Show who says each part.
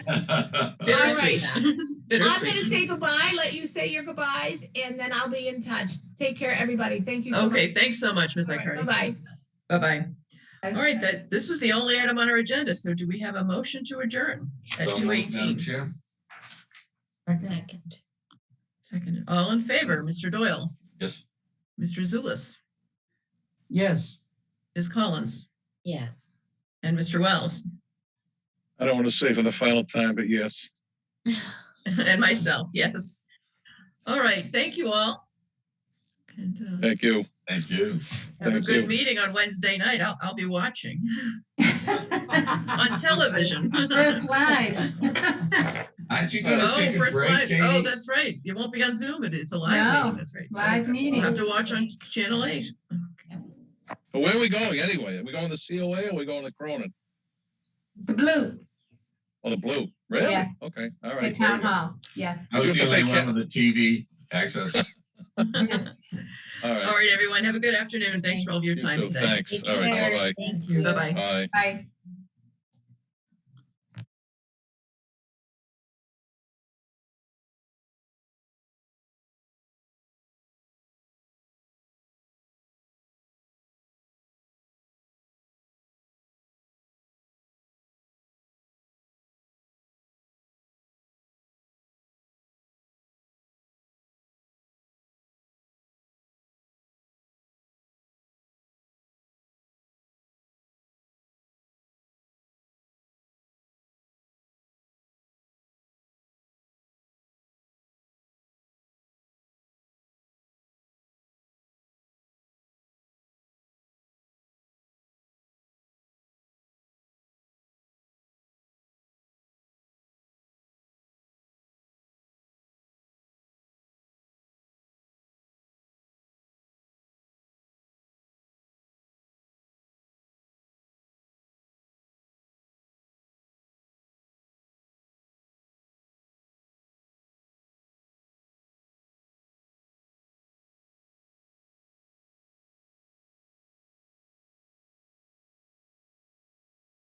Speaker 1: All
Speaker 2: Bittersweet.
Speaker 1: right. I'm going to say goodbye, let you say your goodbyes, and then I'll be in touch. Take care, everybody. Thank you so much.
Speaker 2: Okay, thanks so much, Ms.
Speaker 1: All right,
Speaker 2: Icardi.
Speaker 1: Bye-bye.
Speaker 2: Bye-bye. All right, that, this was the only item on our agenda, so do we have a motion to adjourn
Speaker 3: So
Speaker 2: at
Speaker 3: moved,
Speaker 2: two
Speaker 3: Madam
Speaker 2: eighteen?
Speaker 3: Chair.
Speaker 4: Second.
Speaker 2: Second, all in favor, Mr. Doyle,
Speaker 3: Yes,
Speaker 2: Mr. Zulus,
Speaker 5: Yes.
Speaker 2: Ms. Collins,
Speaker 4: Yes.
Speaker 2: and Mr. Wells,
Speaker 6: I don't want to say for the final time, but yes.
Speaker 2: and myself, yes. All right, thank you all. And uh,
Speaker 6: Thank you.
Speaker 3: thank you.
Speaker 2: have a
Speaker 6: thank
Speaker 2: good
Speaker 6: you.
Speaker 2: meeting on Wednesday night. I'll, I'll be watching on television.
Speaker 7: First live.
Speaker 3: Aren't you gonna
Speaker 2: Oh,
Speaker 3: take a
Speaker 2: first
Speaker 3: break,
Speaker 2: live, oh,
Speaker 3: Katie?
Speaker 2: that's right. It won't be on Zoom, it is a live
Speaker 7: No,
Speaker 2: meeting, that's right. So
Speaker 7: Live
Speaker 2: We'll have
Speaker 7: meeting.
Speaker 2: to watch on Channel 8.
Speaker 6: But where are we going anyway? Are we going to COA or are we going to Cronin?
Speaker 7: The blue,
Speaker 6: Or the Blue? Really?
Speaker 7: Yes.
Speaker 6: Okay, all
Speaker 7: the
Speaker 6: right. very
Speaker 7: town
Speaker 6: good.
Speaker 7: hall, yes.
Speaker 3: I was the
Speaker 6: Good
Speaker 3: only
Speaker 6: thing
Speaker 3: one with the TV access.
Speaker 6: All
Speaker 2: All
Speaker 6: right.
Speaker 2: right, everyone, have a good afternoon. Thanks for all of your
Speaker 6: You
Speaker 2: time
Speaker 6: too.
Speaker 2: today.
Speaker 6: Thanks. All right, bye-bye.
Speaker 4: Thank you.
Speaker 2: Bye-bye.
Speaker 6: Bye.
Speaker 7: Bye.